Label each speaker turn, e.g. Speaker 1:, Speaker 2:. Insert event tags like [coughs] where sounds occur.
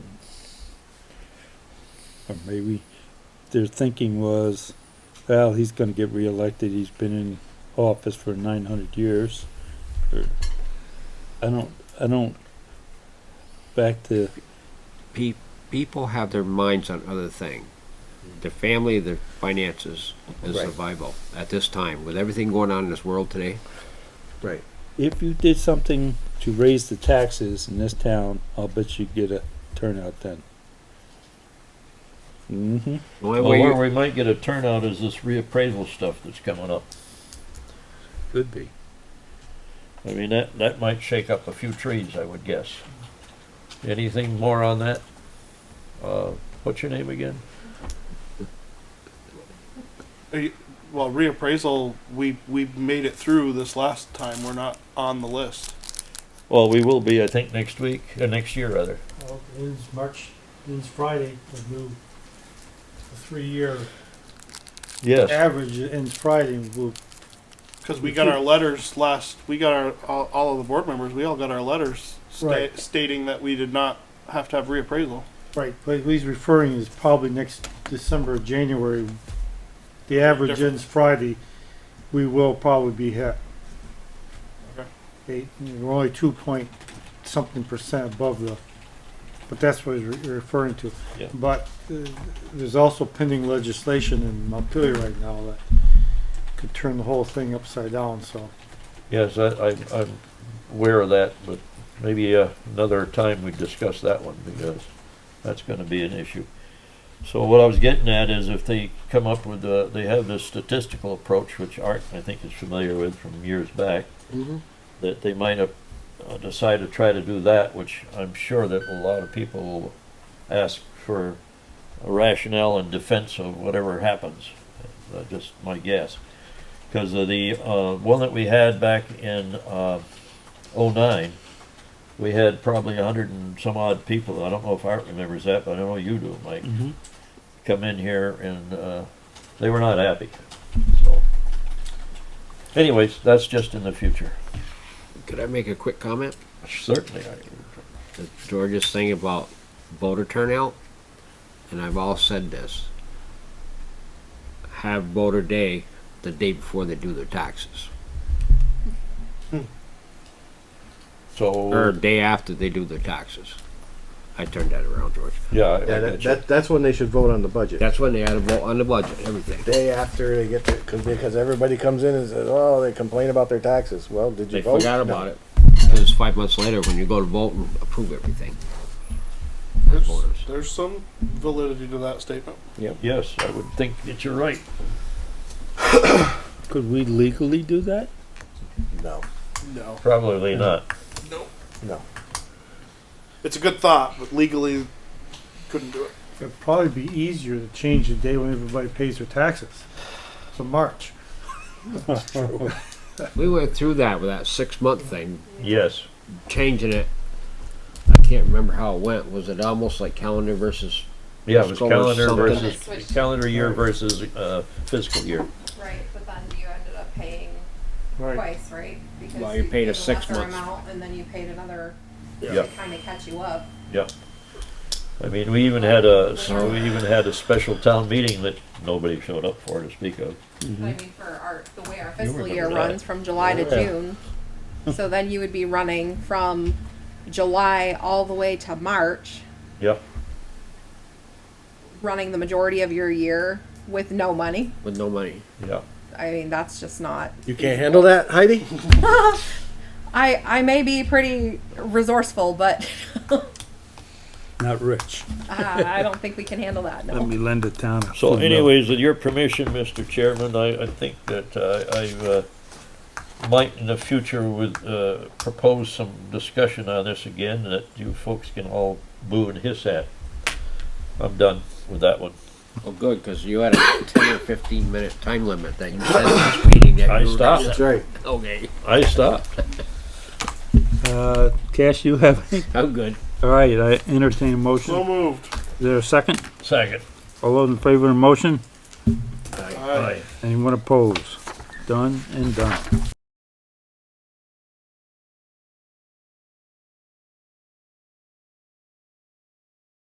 Speaker 1: or maybe their thinking was, well, he's gonna get reelected, he's been in office for nine hundred years. Or- I don't, I don't, back to,
Speaker 2: Pe- people have their minds on other things. Their family, their finances, and
Speaker 3: Right.
Speaker 2: survival at this time. With everything going on in this world today,
Speaker 3: Right.
Speaker 1: if you did something to raise the taxes in this town, I'll bet you'd get a turnout then. Mm-hmm,
Speaker 2: the only
Speaker 4: Well,
Speaker 2: way
Speaker 4: where
Speaker 2: you-
Speaker 4: we might get a turnout is this reappraisal stuff that's coming up.
Speaker 3: Could be.
Speaker 4: I mean, that, that might shake up a few trees, I would guess. Anything more on that? Uh, what's your name again?
Speaker 5: Are you- Uh, Well, reappraisal, we, we made it through this last time. We're not on the list.
Speaker 4: Well, we will be, I think, next week, or Uh, next year, rather.
Speaker 6: Well, it ends March, it ends Friday, the new, the three-year
Speaker 4: Yes,
Speaker 6: average ends Friday, and we'll,
Speaker 5: Because we got our letters last, we got our, all, all of the board members, we all got our letters sta-
Speaker 6: Right.
Speaker 5: stating that we did not have to have reappraisal.
Speaker 6: right, but what he's referring is probably next December, or January. The average
Speaker 5: Different.
Speaker 6: ends Friday, we will probably be hit.
Speaker 5: Okay.
Speaker 6: Eight, we're only two point something percent above the, but that's what he's re- referring to.
Speaker 4: Yeah.
Speaker 6: But uh, there's also pending legislation in Montpelier right now that could turn the whole thing upside down, so.
Speaker 4: yes, I, I, I'm aware of that, but maybe uh, another time we discuss that one, because that's gonna be an issue. So what I was getting at is if they come up with, uh, they have this statistical approach, which Art, I think, is familiar with from years back,
Speaker 3: Mm-hmm.
Speaker 4: that they might have uh, decided to try to do that, which I'm sure that a lot of people will ask for a rationale and defense of whatever happens. That's just my guess. Because of the uh, one that we had back in uh, '09, we had probably a hundred and some odd people. I don't know if Art remembers that, but I know you do, Mike.
Speaker 1: Mhm.
Speaker 4: Come in here and uh, they were not happy. So, anyways, that's just in the future.
Speaker 2: could I make a quick comment?
Speaker 4: Certainly, I
Speaker 2: to George's thing about voter turnout, and I've all said this. Have voter day the day before they do their taxes, or
Speaker 4: So,
Speaker 2: day after they do their taxes. I turned that around, George.
Speaker 4: yeah, I- I
Speaker 3: Yeah,
Speaker 4: got
Speaker 3: that,
Speaker 4: you.
Speaker 3: that, that's when they should vote on the budget.
Speaker 2: That's when they had a vote on the budget, everything.
Speaker 3: Day after they get the, cause, because everybody comes in and says, oh, they complain about their taxes. Well, did you
Speaker 2: They
Speaker 3: vote?
Speaker 2: forgot
Speaker 3: No.
Speaker 2: about it. It was five months later when you go to vote and approve everything.
Speaker 5: There's,
Speaker 2: Voters.
Speaker 5: there's some validity to that statement.
Speaker 4: Yes, I would think that you're right.
Speaker 1: could we legally do that?
Speaker 3: No,
Speaker 5: No.
Speaker 4: Probably not.
Speaker 3: no.
Speaker 5: It's a good thought, but legally couldn't do it.
Speaker 6: It'd probably be easier to change the day when everybody pays their taxes. So March.
Speaker 2: We went through that with that six-month thing,
Speaker 4: Yes.
Speaker 2: changing it. I can't remember how it went. Was it almost like calendar versus
Speaker 4: Yeah, it was
Speaker 2: Let's go with
Speaker 4: calendar
Speaker 2: something.
Speaker 4: versus, calendar year versus uh, fiscal year.
Speaker 7: Right, but then you ended up paying twice, right? Because
Speaker 2: Well, you paid a six
Speaker 7: lesser
Speaker 2: months.
Speaker 7: amount And then you paid another
Speaker 4: Yeah.
Speaker 7: to kind of catch you up.
Speaker 4: Yeah. I mean, we even had a, so we even had a special town meeting that nobody showed up for to speak of.
Speaker 7: But I mean, for our, the way our fiscal
Speaker 4: remember
Speaker 7: year
Speaker 4: that.
Speaker 7: runs from July to
Speaker 4: Yeah.
Speaker 7: June. So then you would be running from July all the way to March,
Speaker 4: Yeah.
Speaker 7: running the majority of your year with no money.
Speaker 2: with no money?
Speaker 4: Yeah.
Speaker 7: I mean, that's just not.
Speaker 3: You can't handle that, Heidi?
Speaker 7: [laughs] I, I may be pretty resourceful, but uh,
Speaker 1: Not rich.
Speaker 7: I I don't think we can handle that. No.
Speaker 1: Let me lend a town. a
Speaker 4: So
Speaker 1: footnote.
Speaker 4: anyways, with your permission, Mr. Chairman, I, I think that uh, I uh, might in the future would uh, propose some discussion on this again that you folks can all boo and hiss at. I'm done with that one.
Speaker 2: Well, Oh, good, because you had [coughs] a ten or fifteen minute time limit that you [coughs] said last meeting that
Speaker 4: I
Speaker 2: you were-
Speaker 4: stopped.
Speaker 3: That's right.
Speaker 2: [laughs] Okay,
Speaker 4: I stopped.
Speaker 1: Uh, Cash, you have any?
Speaker 2: I'm good.
Speaker 1: All right, I entertain a
Speaker 5: So
Speaker 1: motion.
Speaker 5: moved.
Speaker 1: Is there a second?
Speaker 4: Second.
Speaker 1: All those in favor of the motion?
Speaker 5: Aye.
Speaker 1: Anyone opposed? Done and done.